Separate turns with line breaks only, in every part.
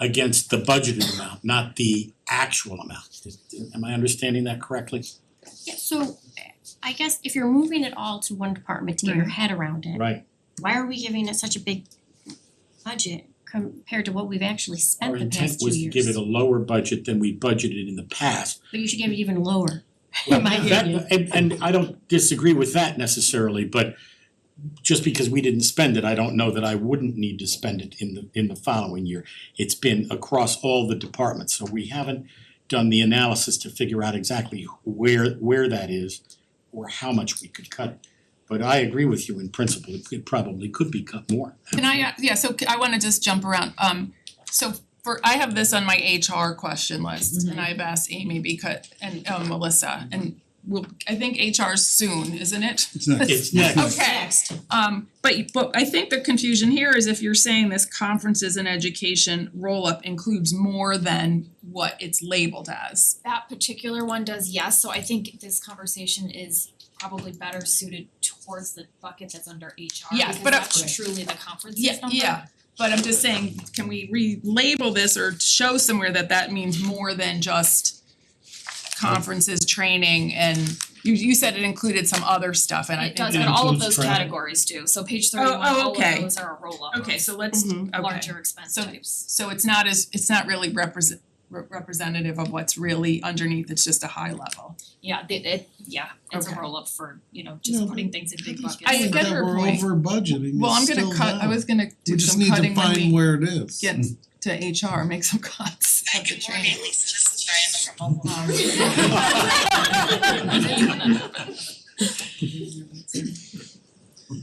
against the budgeted amount, not the actual amount. Am I understanding that correctly?
Yeah, so I guess if you're moving it all to one department to get your head around it,
Mm-hmm. Right,
why are we giving it such a big budget compared to what we've actually spent
our
the
intent
past two
was to
years?
give it a lower budget than we budgeted in the past.
But you should give it even lower, in my
That-
opinion.
and and I don't disagree with that necessarily, but just because we didn't spend it, I don't know that I wouldn't need to spend it in the in the following year. It's been across all the departments, so we haven't done the analysis to figure out exactly where where that is or how much we could cut. But I agree with you in principle, it could probably could be cut more.
Can I, uh, yeah, so c- I wanna just jump around, um, so for, I have this on my HR question list and I've asked Amy because, and um Melissa, and we'll, I think HR soon, isn't it?
It's not,
It's next,
Okay, um, but but I think the confusion here is if you're saying this conferences and education roll-up includes more than what it's labeled as.
that particular one does yes, so I think this conversation is probably better suited towards the bucket that's under HR
Yeah,
because
but I-
that's truly the conferences
Yeah,
number.
yeah, but I'm just saying, can we relabel this or show somewhere that that means more than just conferences, training, and you you said it included some other stuff, and I think
It does,
It
but all of
includes
those
travel.
categories do, so page thirty one,
Oh, oh,
all of
okay.
those are a roll up
Okay, so let's,
Mm-hmm.
Mhm.
okay,
larger expense
So-
types.
so it's not as, it's not really represent re- representative of what's really underneath, it's just a high level.
Yeah, they it, yeah, it's a
Okay.
roll up for, you know, just
No,
putting things in big buckets.
I get her point.
We're over budgeting,
Well, I'm
it's
gonna
still
cut, I
down.
was gonna
We
do
just
some
need to
cutting when
find
we
where Mm. it is.
get to HR, make some cuts of the training.
Lisa, this is Diana from Omaha.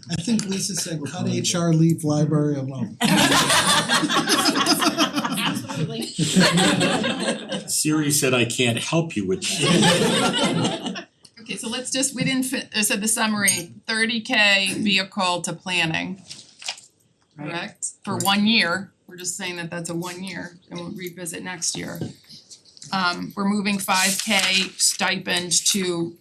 I think Lisa said, cut HR, leave library alone.
Absolutely.
Siri said I can't help you with that.
Okay, so let's just, we didn't fit, so the summary, thirty K vehicle to planning. Correct, for one year, we're just saying that that's a one year and we'll revisit next year. Um we're moving five K stipend to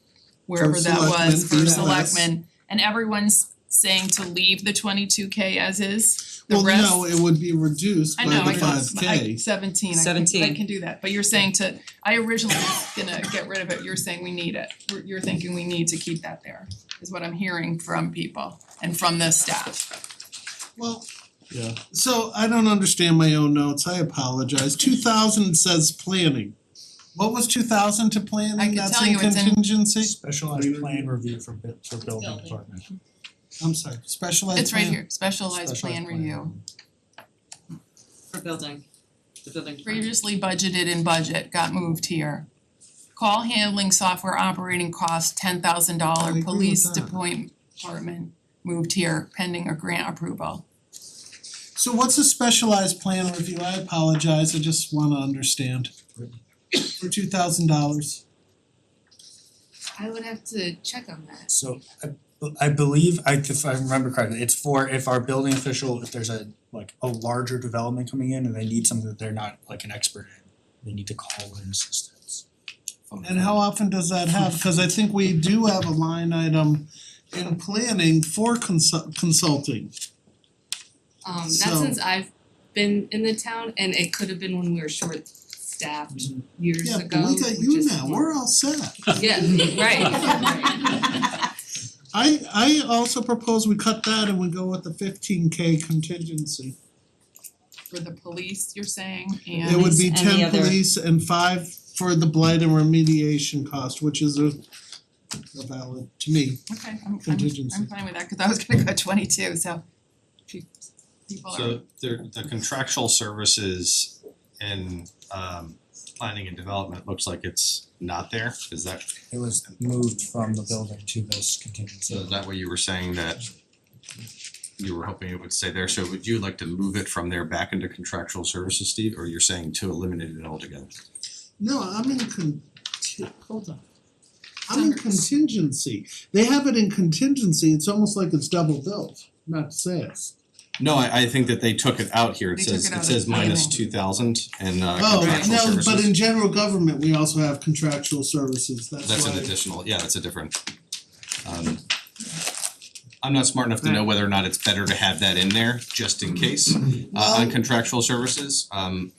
wherever
For
that was
selectmen,
for
BLS.
selectmen. And everyone's saying to leave the twenty two K as is, the
Well,
rest.
no, it would be reduced
I
by
know, I
the
got
five
sm- I
K.
seventeen, I can, I
17.
can do that, but you're saying to, I originally was gonna get rid of it, you're saying we need it. You're- You're thinking we need to keep that there, is what I'm hearing from people and from the staff.
Well, yeah, so I don't understand my own notes, I apologize. Two thousand says planning. What was two thousand to
I
planning?
can
That's
tell
in
you it's in-
contingency?
Specialized plan review for bu- for building
Building.
department.
I'm sorry, specialized
It's right
plan.
here, specialized plan
Specialized plan.
review,
For building, the building department.
previously budgeted in budget, got moved here. Call handling software operating cost, ten thousand
I agree
dollar
with
police
that.
depoint department, moved here pending a grant approval.
So what's a specialized plan review? I apologize, I just wanna understand. For two thousand dollars.
I would have to check on that.
So I I believe I if I remember correctly, it's for if our building official, if there's a like a larger development coming in and they need something that they're not like an expert in, they need to call in assistance.
And how often does that have, cause I think we do have a line item in planning for consult consulting.
Um not
So-
since I've been in the town and it could have been when we were short staffed years
Mm-hmm. Yeah,
ago,
but we got
which
you
is
now,
fun.
we're all set.
Yeah, right.
I I also propose we cut that and we go with the fifteen K contingency.
For the police, you're saying, and.
It would be
Police and the
ten
other-
police and five for the blight and remediation cost, which is a a valid, to me,
Okay, I'm I'm
contingency.
I'm fine with that, cause I was gonna go twenty two, so pe- people are,
So the the contractual services in um planning and development looks like it's not there, is that,
It was moved from the building to this contingency.
so is that what you were saying that you were hoping it would stay there, so would you like to move it from there back into contractual services, Steve, or you're saying to eliminate it altogether?
No, I'm in con- hold on. I'm in contingency, they have it in contingency, it's almost like it's double billed, not sales.
No, I I think that they took it out here, it
They took
says
it
it
out
says
of the
minus
planning.
two thousand and uh
Oh,
contractual
no,
services.
but in general government, we also have contractual services, that's why.
That's an additional, yeah, that's a different. Um I'm not smart enough to know whether or not it's better to have that in there, just in case, uh on contractual services. Um